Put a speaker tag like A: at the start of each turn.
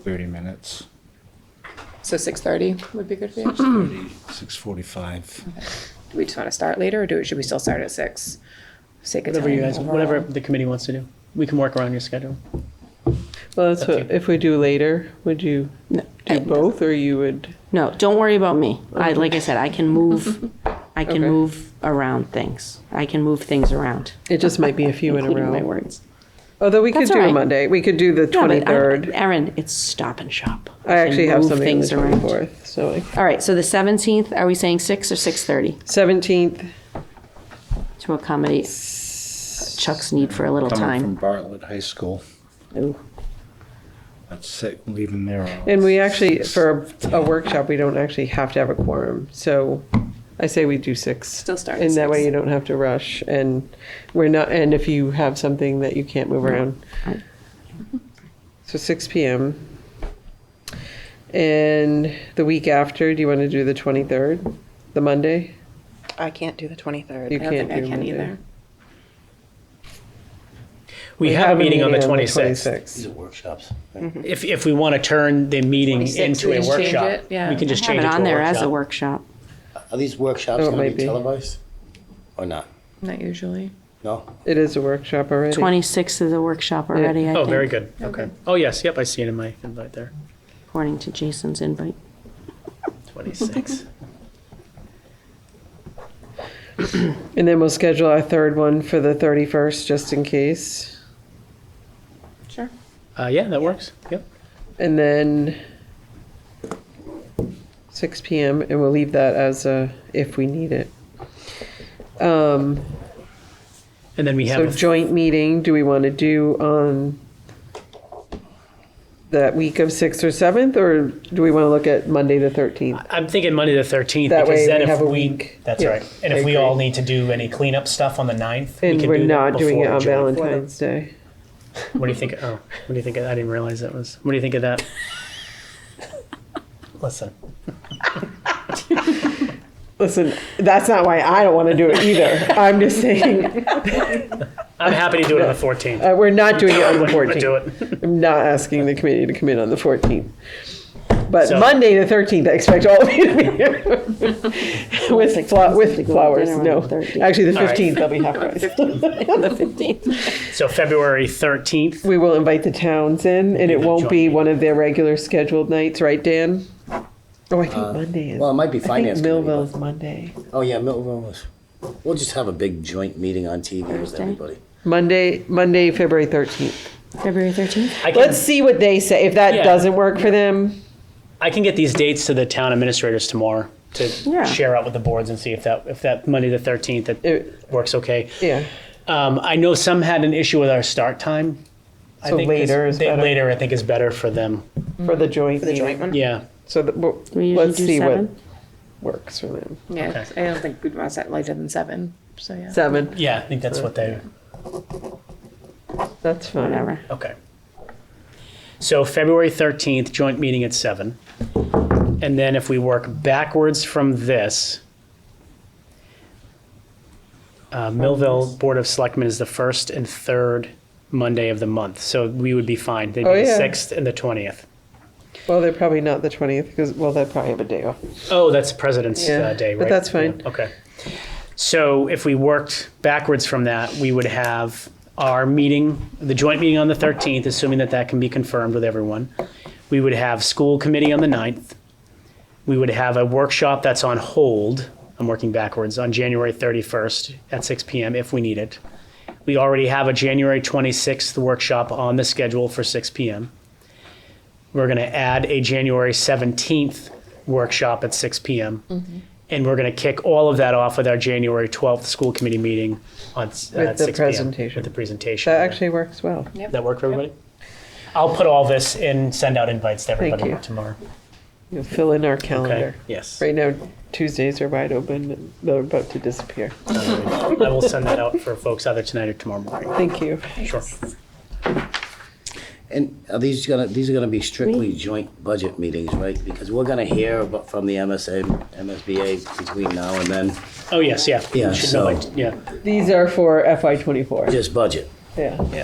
A: thirty minutes.
B: So six thirty would be good for you.
A: Six forty-five.
B: Do we just want to start later, or do should we still start at six? Sake of
C: Whatever you
B: time
C: guys,
B: overall.
C: whatever the committee wants to do. We can work around your schedule.
D: Well, that's what, if we do later, would you
E: No,
D: do both or you would?
E: No, don't worry about me. I, like I said, I can move, I can
D: Okay.
E: move around things. I can move things around,
D: It just might be a few in a
E: including my
D: row.
E: words.
D: Although we could
E: That's
D: do
E: all
D: a
E: right.
D: Monday. We could do the
E: No, but I-
D: 23rd.
E: Erin, it's stop and shop.
D: I
E: can
D: actually have
E: move
D: something on the
E: things around.
D: 24th, so I-
E: All right, so the seventeenth, are we saying six or six thirty
D: 17th.
E: to accommodate Chuck's need for a little
A: Coming from
E: time?
A: Bartlett High School.
E: Ooh.
A: That's sick, leaving there. on-
D: And we actually, for a workshop, we don't actually have to have a quorum. So I say we do six.
B: Still start at
D: And that way
B: six.
D: you don't have to rush. And we're not, and if you have something that you can't move around.
E: I-
D: So 6 PM. And the week after, do you want to do the 23rd, the Monday?
F: I can't do the 23rd.
D: You
B: I don't
D: can't
B: think I
D: do
B: can
D: Monday.
B: either.
C: We have a meeting on the 26th.
G: These are workshops. right?
C: If, if we want to turn the meeting
B: 26th,
C: into
B: we
C: a
B: just change
C: workshop,
B: it,
C: we
B: yeah.
C: can just
E: Have
C: change
E: it
C: it to
E: on
C: a
E: there as a
C: workshop.
E: workshop.
G: Are these workshops
D: Oh, it
G: going
D: might be.
G: to be televised or not?
B: Not usually.
G: No?
D: It is a workshop already.
E: Twenty-sixth is a workshop already, I
C: Oh, very
E: think,
C: good. Okay. Oh, yes, yep, I see it in my invite there.
E: according to Jason's invite.
C: 26.
D: And then we'll schedule our third one for the 31st, just in case.
B: Sure.
C: Uh, yeah, that works. Yep.
D: And then 6 p.m. and we'll leave that as a if we need it. Um,
C: And then we have,
D: so
C: a-
D: joint meeting, do we want to do on that week of 6th or 7th or do we want to look at Monday the 13th?
C: I'm thinking Monday the 13th
D: That way
C: because then
D: we
C: if
D: have a
C: we,
D: week.
C: that's
D: Yeah,
C: right. And
D: I
C: if we all
D: agree.
C: need to do any cleanup stuff on the 9th, we
D: And
C: can
D: we're
C: do
D: not
C: that
D: doing
C: before
D: it on
C: the joint.
D: Valentine's Day.
C: What do you think? Oh, what do you think? Of, I didn't realize that was. What do you think of that? Listen,
D: Listen, that's not why I don't want to do it either. I'm just saying
C: I'm happy to do it on the 14th.
D: uh, we're not doing it on the
C: Wouldn't wanna
D: 14th.
C: Do it.
D: I'm not asking the committee to commit on the 14th. But
C: So-
D: Monday, the 13th, I expect all of you to be here. with fla-
E: to
D: with
E: go to
D: flowers,
E: dinner on
D: no.
E: the 13th.
D: Actually, the
C: All right.
D: 15th, they'll be half price.
E: The fifteenth.
C: So February 13th.
D: We will invite the towns in, and it
C: the
D: won't
C: joint
D: be
C: meeting.
D: one of their regular scheduled nights, right, Dan? Oh, I think Monday is.
G: Well, it might be
D: I
G: finance.
D: think
G: committee,
D: Millville's Monday.
G: but- Oh, yeah, Millville was. We'll just have a big joint meeting on TV with
E: Thursday.
G: everybody.
D: Monday, Monday, February 13th.
E: February thirteenth?
C: I can,
D: Let's see what they say. If that
C: Yeah.
D: doesn't work for them,
C: I can get these dates to the town administrators tomorrow to
E: Yeah.
C: share out with the boards and see if that if that Monday the 13th that
D: It-
C: works okay.
D: yeah.
C: Um, I know some had an issue with our start time. I
D: So
C: think 'cause
D: later is
C: they-
D: better.
C: Later, I think is better for them.
D: For the joint
F: The joint
D: meeting.
F: one?
C: Yeah.
D: So the- well,
E: We usually
D: let's
E: do
D: see what
E: seven?
D: works for them.
B: Yeah, I don't think we'd want to set later than seven. So yeah.
D: Seven,
C: Yeah, I think that's what they.
D: that's fine.
E: Whatever.
C: Okay. So February 13th, joint meeting at 7. And then if we work backwards from this, uh, Millville Board of Selectmen is the first and third Monday of the month. So we would be fine. They'd
D: Oh,
C: be the
D: yeah.
C: 6th and the 20th.
D: Well, they're probably not the 20th because, well, they probably have a day off.
C: Oh, that's President's
D: Yeah,
C: uh, Day, right?
D: but that's fine.
C: Yeah, Okay. So if we worked backwards from that, we would have our meeting, the joint meeting on the 13th, assuming that that can be confirmed with everyone. We would have school committee on the 9th. We would have a workshop that's on hold, I'm working backwards, on January 31st at 6 PM if we need it. We already have a January 26th workshop on the schedule for 6 PM. We're going to add a January 17th workshop at 6 PM.
D: Mm-hmm.
C: And we're going to kick all of that off with our January 12th school committee meeting on, s- uh,
D: With
C: at
D: the
C: 6 PM.
D: presentation.
C: With the presentation.
D: That actually works well.
C: That work for everybody? I'll put all this in, send out invites to
D: Thank
C: everybody
D: you.
C: tomorrow.
D: You'll fill in our
C: Okay,
D: calendar.
C: yes.
D: Right now, Tuesdays are wide open. and They're about to disappear.
C: I will send that out for folks either tonight or tomorrow morning.
D: Thank you.
C: Sure.
G: And are these gonna, these are gonna be strictly joint budget meetings, right? Because we're gonna hear about- from the MSA, MSBA between now and then,
C: Oh, yes, yeah.
G: Yeah,
C: Should know by
G: so-
C: t- Yeah.
D: These are for FY24.
G: just budget.
D: Yeah.